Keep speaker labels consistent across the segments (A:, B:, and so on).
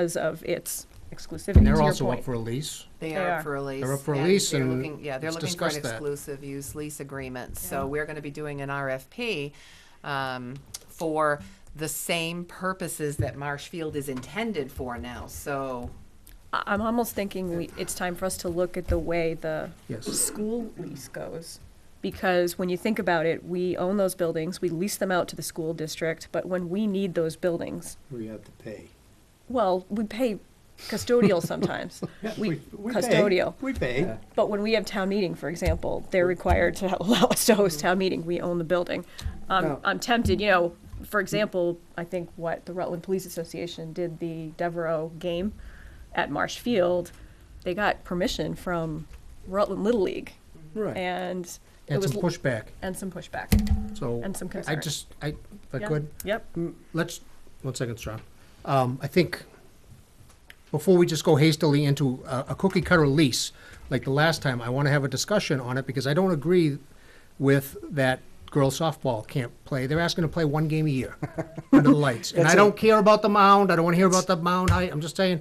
A: because of its exclusivity, to
B: And they're
A: your
B: also up
A: point.
B: for a lease.
C: They
A: They
C: are
A: are.
C: up for a lease.
B: They're up for a
C: and
B: lease,
C: they're
B: and
C: looking- Yeah, they're
B: let's
C: looking for an
B: discuss that.
C: exclusive use lease agreement.
A: Yeah.
C: So we're going to be doing an RFP um, for the same purposes that Marsh Field is intended for now. So
A: I- I'm almost thinking we, it's time for us to look at the way the
B: Yes.
A: school lease goes. Because when you think about it, we own those buildings, we lease them out to the school district, but when we need those buildings,
D: We have to pay.
A: well, we pay custodial sometimes. We,
D: we pay.
A: custodial.
D: We pay.
A: But when we have town meeting, for example, they're required to allow us to host town meeting. We own the building. I'm,
B: Oh.
D: No.
A: I'm tempted, you know, for example, I think what the Rutland Police Association did the Devereaux game at Marsh Field, they got permission from Rutland Little League
D: Right.
A: and it
B: And
A: was,
B: some pushback,
A: and some pushback
B: so.
A: and some
B: I
A: concern.
B: just, I, if I
A: Yeah.
B: could,
A: Yep,
B: Mm. let's, one second, Sean. Um, I think, before we just go hastily into a, a cookie cutter lease, like the last time, I want to have a discussion on it because I don't agree with that girls softball can't play. They're asking to play one game a year under the lights. And I
D: That's it.
B: don't care about the mound. I don't want to hear about the mound height. I'm just saying,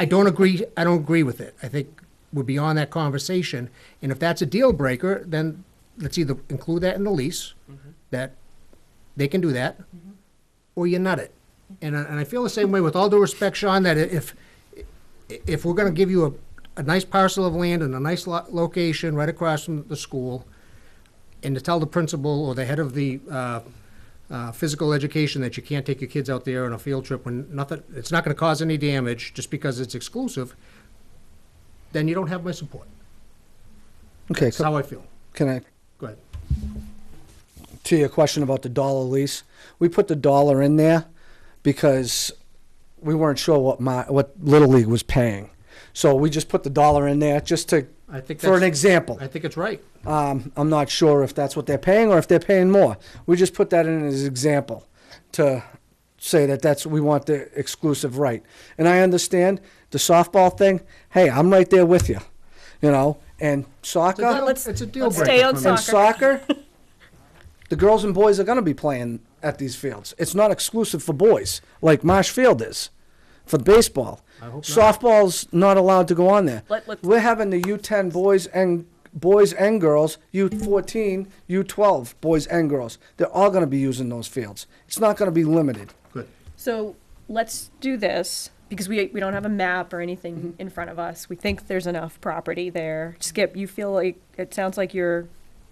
B: I don't agree, I don't agree with it. I think we're beyond that conversation. And if that's a deal breaker, then let's either include that in the lease,
D: Mm-hmm.
B: that they can do that, or you nut it. And, I- and I feel the same way with all due respect, Sean, that if, if we're gonna give you a, a nice parcel of land and a nice lo- location right across from the school, and to tell the principal or the head of the, uh, uh, physical education that you can't take your kids out there on a field trip when nothing, it's not gonna cause any damage just because it's exclusive, then you don't have my support.
D: Okay,
B: That's how I feel.
D: can I,
B: Go ahead.
D: to your question about the dollar lease, we put the dollar in there because we weren't sure what my, what Little League was paying. So we just put the dollar in there just to,
B: I think
D: for an
B: that's-
D: example.
B: I think it's right.
D: Um, I'm not sure if that's what they're paying or if they're paying more. We just put that in as example to say that that's we want the exclusive right. And I understand the softball thing. Hey, I'm right there with you, you know. And soccer
B: It's a deal-
A: let's-
B: it's a deal
A: let's
B: breaker
A: stay on
B: for me.
D: and
A: soccer.
D: soccer, the girls and boys are going to be playing at these fields. It's not exclusive for boys like Marsh Field is for baseball.
B: I hope not.
D: Softball's not allowed to go on there.
A: Let- let's-
D: We're having the U10 boys and boys and girls, U14, U12 boys and girls. They're all going to be using those fields. It's not going to be limited.
B: Good.
A: So let's do this, because we, we don't have a map or anything in front of us. We think there's enough property there. Skip, you feel like, it sounds like you're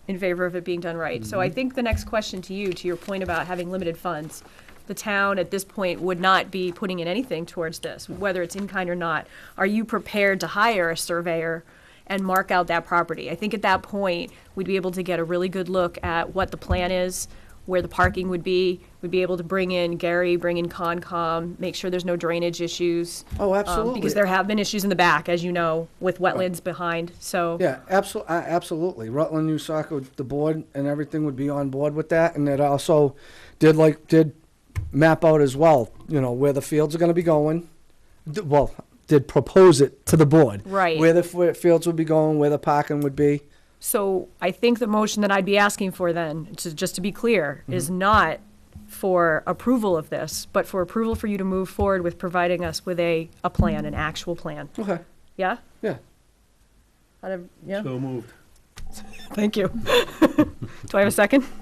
A: in favor of it being done right. So I think the next question to you, to your point about having limited funds, the town at this point would not be putting in anything towards this, whether it's in kind or not. Are you prepared to hire a surveyor and mark out that property? I think at that point, we'd be able to get a really good look at what the plan is, where the parking would be. We'd be able to bring in Gary, bring in Concom, make sure there's no drainage issues.
D: Oh,
A: um,
D: absolutely.
A: Because there have been issues in the back, as you know, with wetlands behind, so.
D: Yeah, absolutely. Absolutely. Rutland New Soccer, the board and everything would be on board with that. And it also did like, did map out as well, you know, where the fields are going to be going. D- Well, did propose it to the board.
A: Right.
D: Where the f- fields would be going, where the parking would be.
A: So I think the motion that I'd be asking for then, to, just to be clear, is not for approval of this, but for approval for you to move forward with providing us with a, a plan, an actual plan.
D: Okay.
A: Yeah?
D: Yeah.
A: Out of- yeah,
E: So moved.
A: thank you. Do I have a second?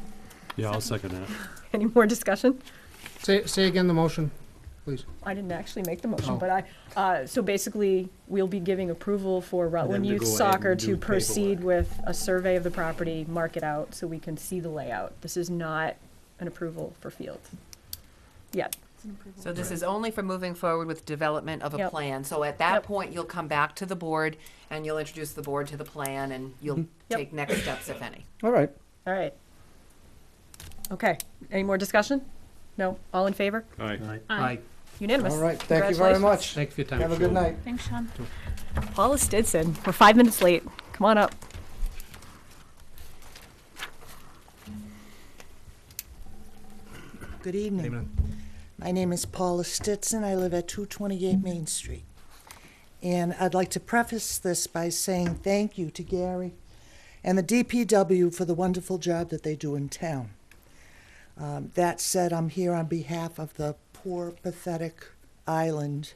E: Yeah, I'll second that.
A: Any more discussion?
B: Say, say again the motion, please.
A: I didn't actually make the motion,
B: Oh.
A: but I, uh, so basically, we'll be giving approval for Rutland
E: to
A: Youth
E: go ahead
A: Soccer
E: and do
A: to
E: the
A: proceed with a survey of the property, mark it out, so we can see the layout. This is not an approval for field. Yet.
C: So this is only for moving forward with development of a
A: Yep.
C: plan. So at
A: Yep.
C: that point, you'll come back to the board and you'll introduce the board to the plan and you'll
B: Mm-hmm.
A: Yep.
C: take next steps, if any.
D: All right.
A: All right. Okay, any more discussion? No? All in favor?
E: All right.
B: Aye.
A: Unanimous.
D: All right. Thank you very much.
B: Thank you for your time.
D: Have a good night.
F: Thanks, Sean.
A: Congratulations. Paula Stinson, we're five minutes late. Come on up.
G: Good evening. My name is Paula Stetson. I live at 228 Main Street. And I'd like to preface this by saying thank you to Gary and the DPW for the wonderful job that they do in town. Um, That said, I'm here on behalf of the poor, pathetic island